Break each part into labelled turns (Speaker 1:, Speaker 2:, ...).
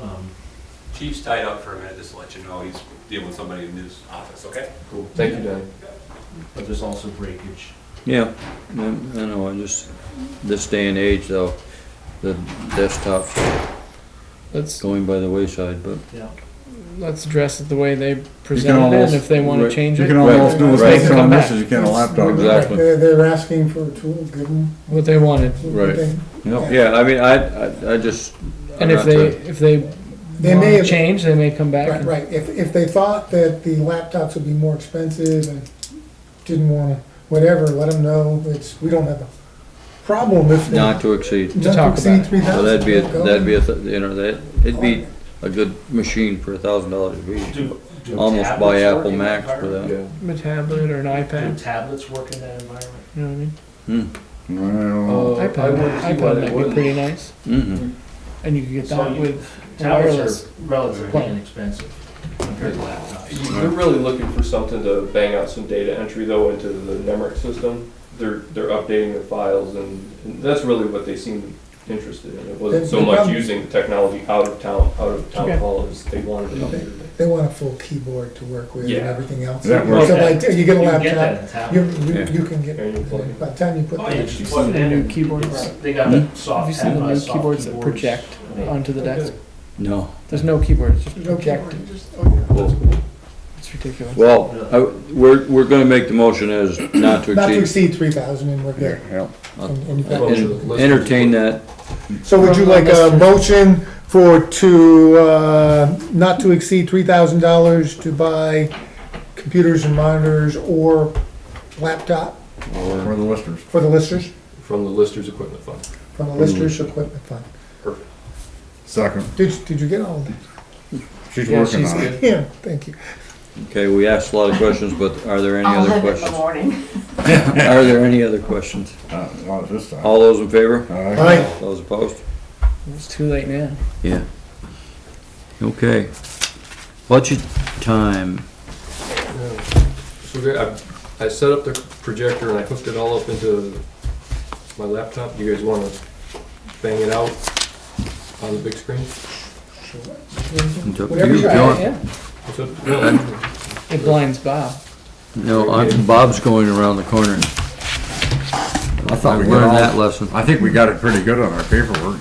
Speaker 1: Um,
Speaker 2: Chief's tied up for a minute, just to let you know, he's dealing with somebody in his office, okay?
Speaker 3: Cool. Thank you, Danny.
Speaker 1: But there's also breakage.
Speaker 4: Yeah, I I know, I just, this day and age though, the desktop's
Speaker 5: Let's
Speaker 4: going by the wayside, but.
Speaker 1: Yeah.
Speaker 5: let's address it the way they presented it,
Speaker 6: almost-
Speaker 5: and if they want
Speaker 4: right,
Speaker 5: to change
Speaker 6: You
Speaker 5: it,
Speaker 6: can almost do a
Speaker 4: Right.
Speaker 6: face on this as you can a laptop.
Speaker 4: Exactly.
Speaker 7: They're, they're asking for a tool, give them.
Speaker 5: what they wanted.
Speaker 6: Right. Yep.
Speaker 4: Yeah, I mean, I, I, I just.
Speaker 5: And if
Speaker 4: not
Speaker 5: they,
Speaker 4: to-
Speaker 5: if they
Speaker 7: They
Speaker 5: want
Speaker 7: may
Speaker 5: to
Speaker 7: have-
Speaker 5: change, they may come back.
Speaker 7: Right,
Speaker 5: and-
Speaker 7: right, if, if they thought that the laptops would be more expensive and didn't wanna, whatever, let them know, it's, we don't have a problem if they.
Speaker 4: Not to exceed,
Speaker 5: to talk about it.
Speaker 7: Three
Speaker 4: so
Speaker 7: thousand.
Speaker 4: that'd be, a that'd be, a th- you know, that, it'd be a good machine for a thousand dollars a piece.
Speaker 1: Do- do
Speaker 4: Almost
Speaker 1: tablets
Speaker 4: buy
Speaker 1: work
Speaker 4: Apple
Speaker 1: in that
Speaker 4: Macs for
Speaker 1: environment?
Speaker 4: that.
Speaker 3: Yeah.
Speaker 5: A tablet or an
Speaker 1: Do
Speaker 5: iPad,
Speaker 1: tablets work in that environment?
Speaker 5: you know what I mean?
Speaker 6: Well,
Speaker 3: Uh, I
Speaker 5: iPad,
Speaker 3: wouldn't see why
Speaker 5: iPad
Speaker 3: they
Speaker 5: might be
Speaker 3: wouldn't.
Speaker 5: pretty nice,
Speaker 4: Mm-hmm,
Speaker 5: and you could get
Speaker 1: So
Speaker 5: that
Speaker 1: you-
Speaker 5: with
Speaker 1: Tablets
Speaker 5: wireless.
Speaker 1: are relatively
Speaker 5: plan.
Speaker 1: inexpensive compared to laptops.
Speaker 3: You- They're really looking for something to bang out some data entry though into the Nemrick system. They're, they're updating the files and, and that's really what they seemed interested in. It wasn't so much using the technology out of town, out of
Speaker 5: Okay.
Speaker 3: town hall as they wanted to update it.
Speaker 7: They want a full keyboard to work with and
Speaker 3: Yeah.
Speaker 7: everything else. So
Speaker 6: That works.
Speaker 7: like, you get a
Speaker 1: You can get that
Speaker 7: laptop,
Speaker 1: in a
Speaker 7: you,
Speaker 1: tablet.
Speaker 7: you,
Speaker 4: Yeah.
Speaker 7: you can get,
Speaker 3: And you plug it.
Speaker 7: by the time you put
Speaker 1: Oh, yeah,
Speaker 7: that.
Speaker 1: you
Speaker 5: Have
Speaker 1: plug it
Speaker 5: you seen
Speaker 1: in
Speaker 5: the new
Speaker 1: and-
Speaker 5: keyboards?
Speaker 1: They got the
Speaker 5: Have you
Speaker 1: soft, uh,
Speaker 5: seen the new
Speaker 1: soft keyboards.
Speaker 5: keyboards that project
Speaker 1: They-
Speaker 5: onto the desk?
Speaker 4: no.
Speaker 5: There's no keyboards, just
Speaker 7: no
Speaker 5: project.
Speaker 7: keyboard, just- oh, yeah.
Speaker 5: It's ridiculous.
Speaker 4: Well, I, we're, we're gonna make the motion as not to
Speaker 7: Not to
Speaker 4: exceed,
Speaker 7: exceed three thousand and we're good.
Speaker 6: Yeah.
Speaker 7: And- and you've got-
Speaker 4: and entertain that,
Speaker 7: So would you
Speaker 5: From, uh,
Speaker 7: like a
Speaker 5: Mr.
Speaker 7: motion for to, uh, not to exceed three thousand dollars to buy computers and monitors or laptop
Speaker 6: For the listeners.
Speaker 7: for the listers,
Speaker 3: From the listers equipment fund.
Speaker 7: from the
Speaker 6: Hmm.
Speaker 7: listers equipment fund?
Speaker 6: Second.
Speaker 7: Did, did you get all of that?
Speaker 6: She's
Speaker 5: Yeah,
Speaker 6: working
Speaker 5: she's
Speaker 6: on it.
Speaker 5: good.
Speaker 7: Yeah, thank you.
Speaker 4: okay, we asked a lot of questions, but are there any
Speaker 8: I'll
Speaker 4: other
Speaker 8: have it in the
Speaker 4: questions?
Speaker 8: morning.
Speaker 4: Are there any other questions?
Speaker 6: Uh, Not this time. Uh,
Speaker 4: All those in favor?
Speaker 7: All right,
Speaker 4: Those opposed?
Speaker 5: It's too late now.
Speaker 4: Yeah. Okay. Budget time.
Speaker 9: So there, I, I set up the projector and I hooked it all up into my laptop. You guys wanna bang it out on the big screen?
Speaker 4: It's up to
Speaker 7: Whatever
Speaker 4: you,
Speaker 7: you
Speaker 4: John.
Speaker 5: Yeah,
Speaker 9: What's up? No.
Speaker 5: it blinds Bob.
Speaker 4: No, I'm, Bob's going around the corner.
Speaker 6: I thought
Speaker 4: I
Speaker 6: we
Speaker 4: learned
Speaker 6: got all-
Speaker 4: that lesson.
Speaker 6: I think we got it pretty good on our paperwork.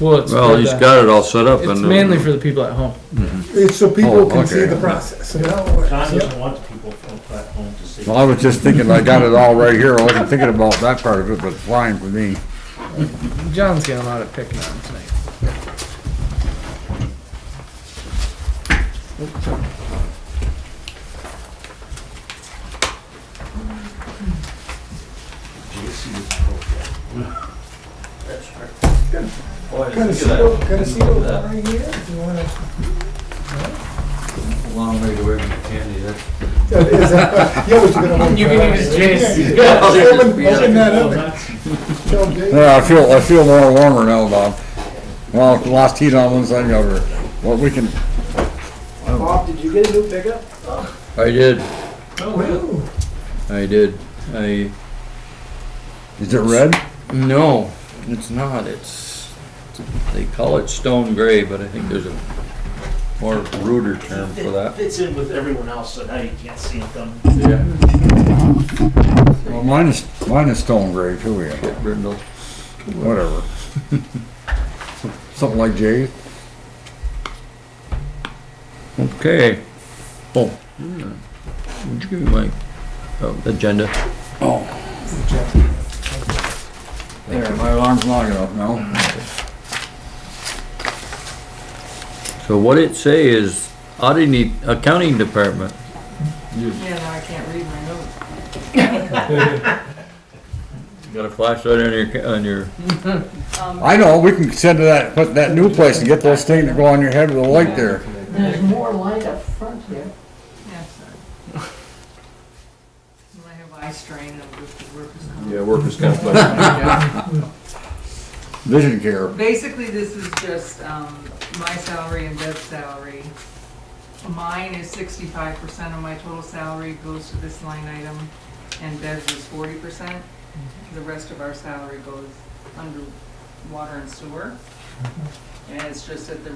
Speaker 5: Well, it's
Speaker 4: Well,
Speaker 5: for
Speaker 4: he's
Speaker 5: the-
Speaker 4: got it all set up and.
Speaker 5: It's mainly for the people at home.
Speaker 7: it's so people
Speaker 6: Oh,
Speaker 7: can see
Speaker 6: okay.
Speaker 7: the process and how it works.
Speaker 1: John
Speaker 7: Yep.
Speaker 1: doesn't want the people from at home to see.
Speaker 6: Well, I was just thinking, I got it all right here. I wasn't thinking about that part of it, but it's fine for me.
Speaker 5: John's got a lot of picking on tonight.
Speaker 1: That's right.
Speaker 2: Boy,
Speaker 7: Got a
Speaker 2: think of that.
Speaker 7: seal, got a seal
Speaker 2: Look at that.
Speaker 7: right here, if you wanna.
Speaker 2: Long way to where we candy, that's.
Speaker 7: Is that- Yeah, but you're gonna. hold
Speaker 5: You can
Speaker 7: that.
Speaker 5: use Jace.
Speaker 7: Yeah,
Speaker 2: Yeah, I'll just
Speaker 7: Open
Speaker 2: be like-
Speaker 7: open that up. Tell Jay.
Speaker 6: Yeah, I feel, I feel more warmer now, Bob. Well, lost heat on one side over. Well, we can,
Speaker 1: Bob, did you get a new pickup?
Speaker 4: I did,
Speaker 7: Wow.
Speaker 4: I did. I,
Speaker 6: is it red?
Speaker 4: no, it's not, it's, they call it stone gray, but I think there's a more ruder term for
Speaker 1: It
Speaker 4: that.
Speaker 1: fits in with everyone else, so now you can't see it coming.
Speaker 4: Yeah.
Speaker 6: Well, mine is, mine is stone gray too, yeah.
Speaker 4: Brindle.
Speaker 6: Whatever. Something like Jay's.
Speaker 4: Okay. Oh. yeah. Would you give me my, oh, agenda?
Speaker 6: There, my alarm's long enough now.
Speaker 4: So what it say is auditing, accounting department.
Speaker 8: Yeah, now I can't read my notes.
Speaker 4: You got a flashlight on your, ca- on your,
Speaker 6: I know, we can send to that, put that new place and get those things to go on your head with a light there.
Speaker 8: There's more light up front here. Yes, sir. When I have eye strain, I'm just the workers' comp.
Speaker 9: Yeah, workers' compensation.
Speaker 6: Vision care.
Speaker 8: Basically, this is just, um, my salary and Deb's salary. Mine is sixty-five percent of my total salary goes to this line item, and Deb's is forty percent.
Speaker 4: Mm-hmm.
Speaker 8: The rest of
Speaker 4: Mm-hmm.
Speaker 8: our salary goes under water and sewer. And it's just at the